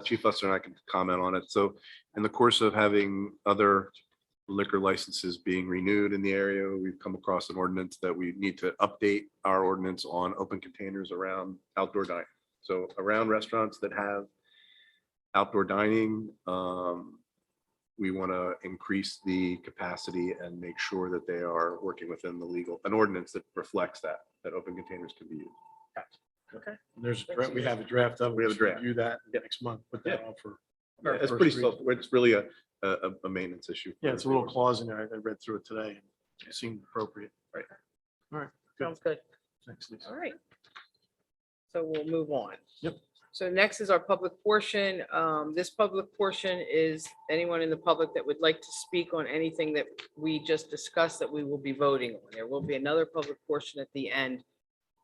Chief Lester and I can comment on it. So in the course of having other liquor licenses being renewed in the area, we've come across an ordinance that we need to update our ordinance on open containers around outdoor dining. So around restaurants that have outdoor dining, um, we want to increase the capacity and make sure that they are working within the legal, an ordinance that reflects that, that open containers can be used. There's, a dra- we have a draft of, it. We have a should draft. Review that next month, put that on for. Yeah, It's first pretty reading. self, it's really a, a, a- a maintenance issue. Yeah, it's a little clause in there. I- I read through it today. and It seemed appropriate. Right. All right. Sounds good. Thanks, All Lisa. right. So we'll move on. Yep. So next is our public portion. Um, This public portion is anyone in the public that would like to speak on anything that we just discussed that we will be voting on. There will be another public portion at the end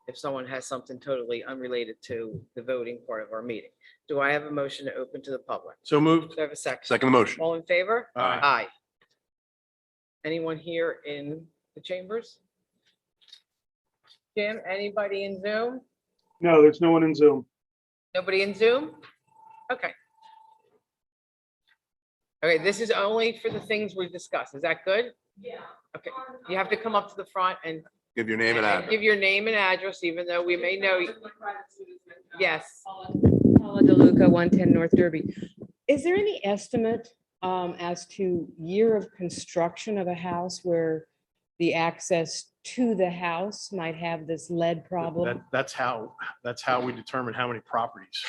if someone has something totally unrelated to the voting part of our meeting. Do I have a motion to open to the public? So moved. Do I have a second? Second motion. All in favor? Aye. Aye. Anyone here in the chambers? Jim, anybody in Zoom? No, there's no one in Zoom. Nobody in Zoom? Okay. Okay, this is only for the things we've discussed. Is that good? Yeah. Okay, you have to come up to the front and Give your name and and address. give your name and address, even though we may know. you- Yes. Paula DeLuca, 110 North Derby. Is there any estimate um, as to year of construction of a house where the access to the house might have this lead problem? That- That's how, that's how we determine how many properties.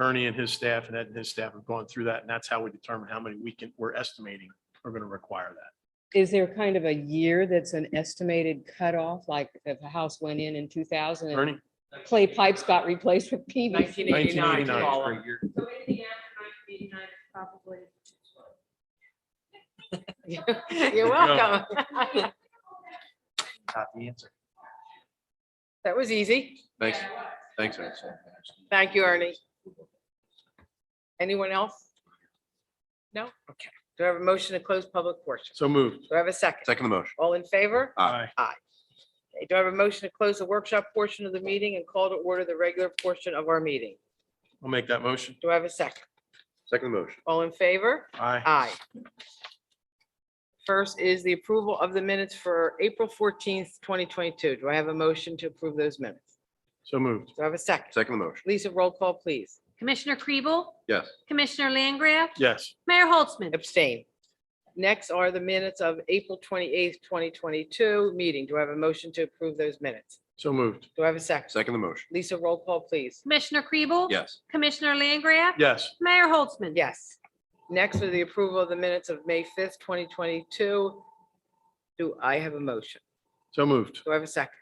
Ernie and his staff and Ed and his staff have gone through that, and that's how we determine how many we can, we're estimating are going to require that. Is there kind of a year that's an estimated cutoff, like if a house went in in 2000 and Ernie? clay pipes got replaced with PVC? 1989, 1989. Paula. So anything after nineteen eighty-nine is probably. You're welcome. Not the answer. That was easy. Thanks, Yeah, what? thanks. Ed. Thank you, Ernie. Anyone else? No? Okay. Do I have a motion to close public portion? So moved. Do I have a second? Second motion. All in favor? Aye. Okay, Do I have a motion to close the workshop portion of the meeting and call to order the regular portion of our meeting? I'll make that motion. Do I have a second? Second motion. All in favor? Aye. Aye. First is the approval of the minutes for April fourteenth, twenty twenty-two. Do I have a motion to approve those minutes? So moved. Do I have a second? Second motion. Lisa, roll call, please. Commissioner Kribel? Yes. Commissioner Langgraf? Yes. Mayor Holtzman? Abstain. Next are the minutes of April twenty-eighth, twenty twenty-two meeting. Do I have a motion to approve those minutes? So moved. Do I have a second? Second motion. Lisa, roll call, please. Commissioner Kribel? Yes. Commissioner Langgraf? Yes. Mayor Holtzman? Yes. Next are the approval of the minutes of May fifth, twenty twenty-two. Do I have a motion? So moved. Do I have a second?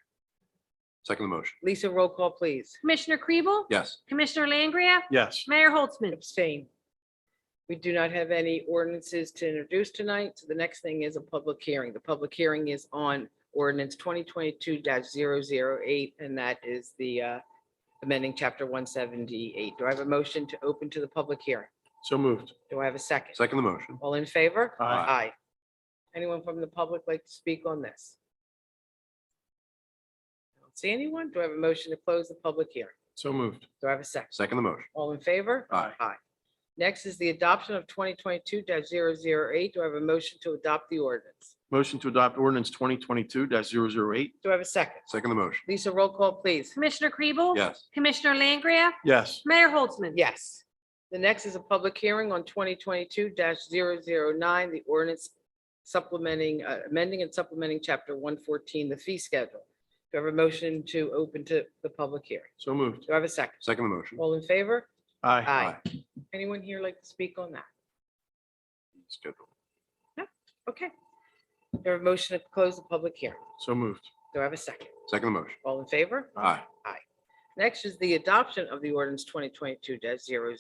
Second motion. Lisa, roll call, please. Commissioner Kribel? Yes. Commissioner Langgraf? Yes. Mayor Holtzman? Abstain. We do not have any ordinances to introduce tonight, so the next thing is a public hearing. The public hearing is on ordinance twenty twenty-two 8 and that is the uh, amending chapter one seventy-eight. Do I have a motion to open to the public hearing? So moved. Do I have a second? Second motion. All in favor? Aye. Aye. Anyone from the public like to speak on this? I don't See anyone? Do I have a motion to close the public hearing? So moved. Do I have a second? Second motion. All in favor? Aye. Aye. Next is the adoption of twenty twenty-two 8 Do I have a motion to adopt the ordinance? Motion to adopt ordinance twenty twenty-two 8 Do I have a second? Second motion. Lisa, roll call, please. Commissioner Kribel? Yes. Commissioner Langgraf? Yes. Mayor Holtzman? Yes. The next is a public hearing on twenty twenty-two 9 the ordinance supplementing, uh, amending and supplementing chapter one fourteen, the fee schedule. Do I have a motion to open to the public hearing? So moved. Do I have a second? Second motion. All in favor? Aye. Anyone here like to speak on that? Schedule. Okay. Do I have a motion to close the public hearing? So moved. Do I have a second? Second motion. All in favor? Aye. Next is the adoption of the ordinance twenty twenty-two 9 Do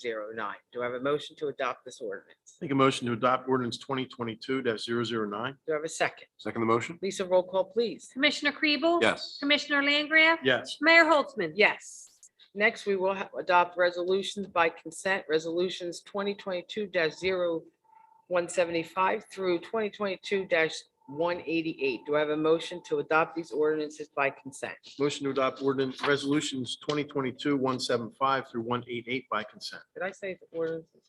I have a motion to adopt this ordinance? Make a motion to adopt ordinance twenty twenty-two 9 Do I have a second? Second motion. Lisa, roll call, please. Commissioner Kribel? Yes. Commissioner Langgraf? Yes. Mayor Holtzman? Yes. Next, we will ha- adopt resolutions by consent, resolutions twenty twenty-two 175 through twenty twenty-two 176 one eighty-eight. Do I have a motion to adopt these ordinances by consent? Motion to adopt ordinance resolutions twenty twenty-two, one seven five through one eight eight by consent. Did I say the ordinance?